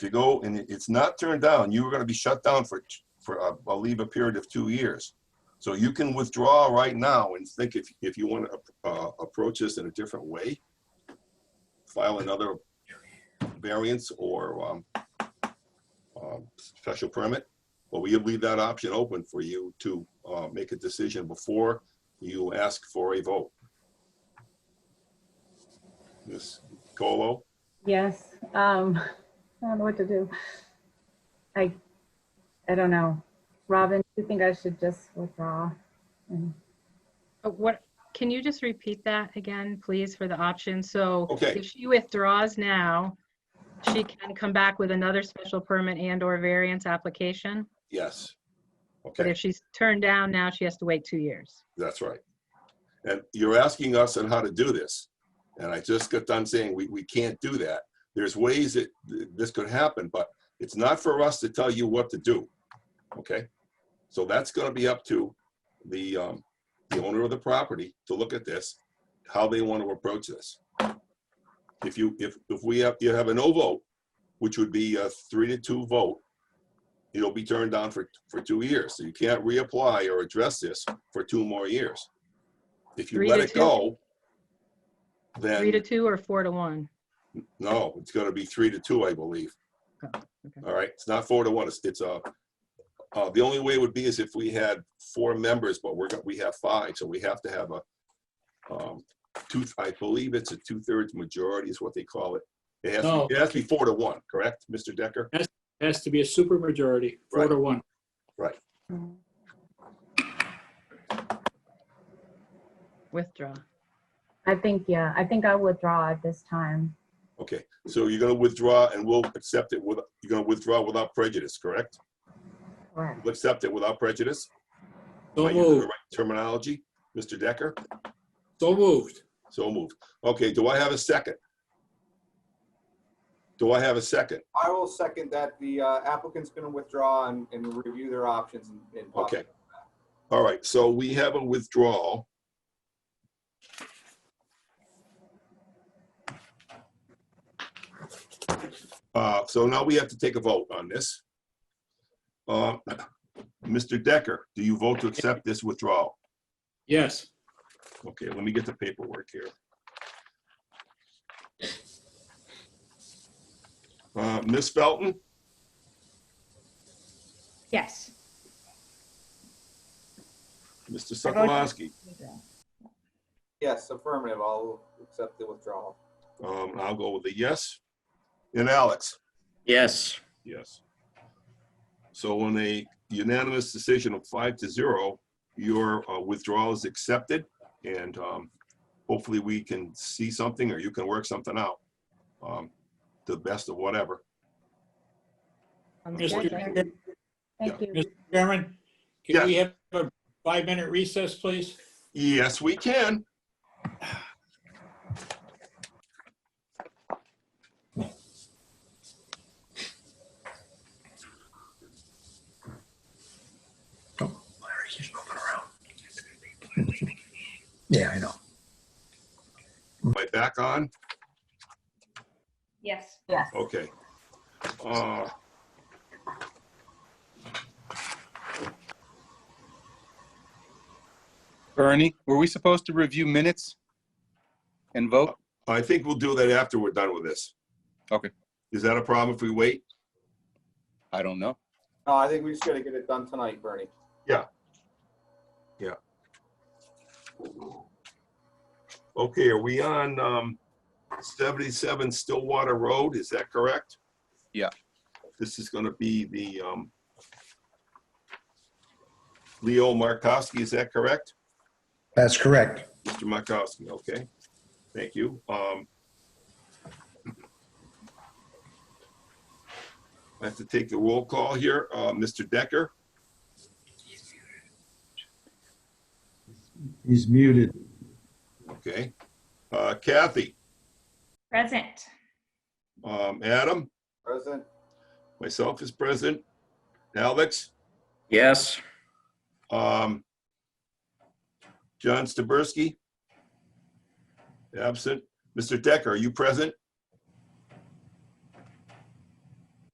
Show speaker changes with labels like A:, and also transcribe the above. A: If you go and it- it's not turned down, you are going to be shut down for, for, uh, I believe, a period of two years. So you can withdraw right now and think if, if you want to uh, approach this in a different way, file another variance or um, um, special permit, but we leave that option open for you to uh, make a decision before you ask for a vote. Ms. Colo,
B: Yes, um, I don't know what to do. I, I don't know. Robin, do you think I should just withdraw? And-
C: Uh, What, can you just repeat that again, please, for the option? So
A: Okay.
C: if she withdraws now, she can come back with another special permit and/or variance application?
A: yes.
C: But
A: Okay,
C: if she's turned down now, she has to wait two years.
A: that's right. And you're asking us on how to do this. And I just got done saying we, we can't do that. There's ways that th- this could happen, but it's not for us to tell you what to do. Okay? So that's gonna be up to the, um, the owner of the property to look at this, how they want to approach this. If you, if, if we have, you have a no vote, which would be a three to two vote, it'll be turned down for, for two years. So you can't reapply or address this for two more years. If you
C: Three
A: let
C: to
A: it
C: two?
A: go, then.
C: Three to two or four to one?
A: No, it's gonna be three to two, I believe.
C: Oh, okay.
A: All right, it's not four to one, it's, it's uh uh, the only way would be is if we had four members, but we're, got- we have five, so we have to have a, um, two, I believe it's a two-thirds majority is what they call it. It has,
D: No.
A: it has to be four to one, correct, Mr. Decker?
D: Has to be a supermajority, four to one.
C: Withdraw.
B: I think, yeah, I think I withdraw at this time.
A: Okay, so you're gonna withdraw and we'll accept it with, you're gonna withdraw without prejudice, correct?
B: Correct.
A: We'll accept it without prejudice? Am I
D: So
A: using the
D: moved,
A: right Terminology, Mr. Decker?
D: so moved.
A: So moved. Okay, do I have a second? Do I have a second?
E: I will second that the uh, applicant's going to withdraw and, and review their options and. and possibly-
A: Okay. All right, so we have a withdrawal. Uh, so now we have to take a vote on this. Uh, Mr. Decker, do you vote to accept this withdrawal?
D: Yes,
A: Okay, let me get the paperwork here. Uh, Ms. Felton,
F: Yes.
A: Mr.
F: I vote yes.
A: Sokolowski.
E: Yes, affirmative. I'll accept the withdrawal.
A: Um, I'll go with a yes. And Alex?
G: Yes,
A: Yes. So on a unanimous decision of five to zero, your uh, withdrawal is accepted and um, hopefully we can see something or you can work something out. um, To the best of whatever.
C: Um,
D: Mr.
C: Decker?
D: Chairman-
B: Thank you.
D: Mr. Chairman, can we have a five-minute recess, please?
A: Yes, we can.
H: Larry, he's moving around. Yeah, I know.
A: Am I back on?
F: Yes.
A: Okay. Uh,
I: Ernie, were we supposed to review minutes and vote?
A: I think we'll do that after we're done with this.
I: Okay.
A: Is that a problem if we wait?
I: I don't know.
E: No, I think we just got to get it done tonight, Bernie.
A: Okay, are we on um, 77 Stillwater Road? Is that correct?
I: Yeah.
A: This is going to be the um, Leo Markowski, is that correct?
H: That's correct.
A: Mr. Markowski, okay. Thank you. Um, I have to take the roll call here. Uh, Mr. Decker,
H: He's muted.
A: okay. Uh, Kathy,
F: Present.
A: um, Adam,
E: President,
A: myself is present. Alex?
G: yes,
A: Um, John Staberski? Absent. Mr. Decker, are you present?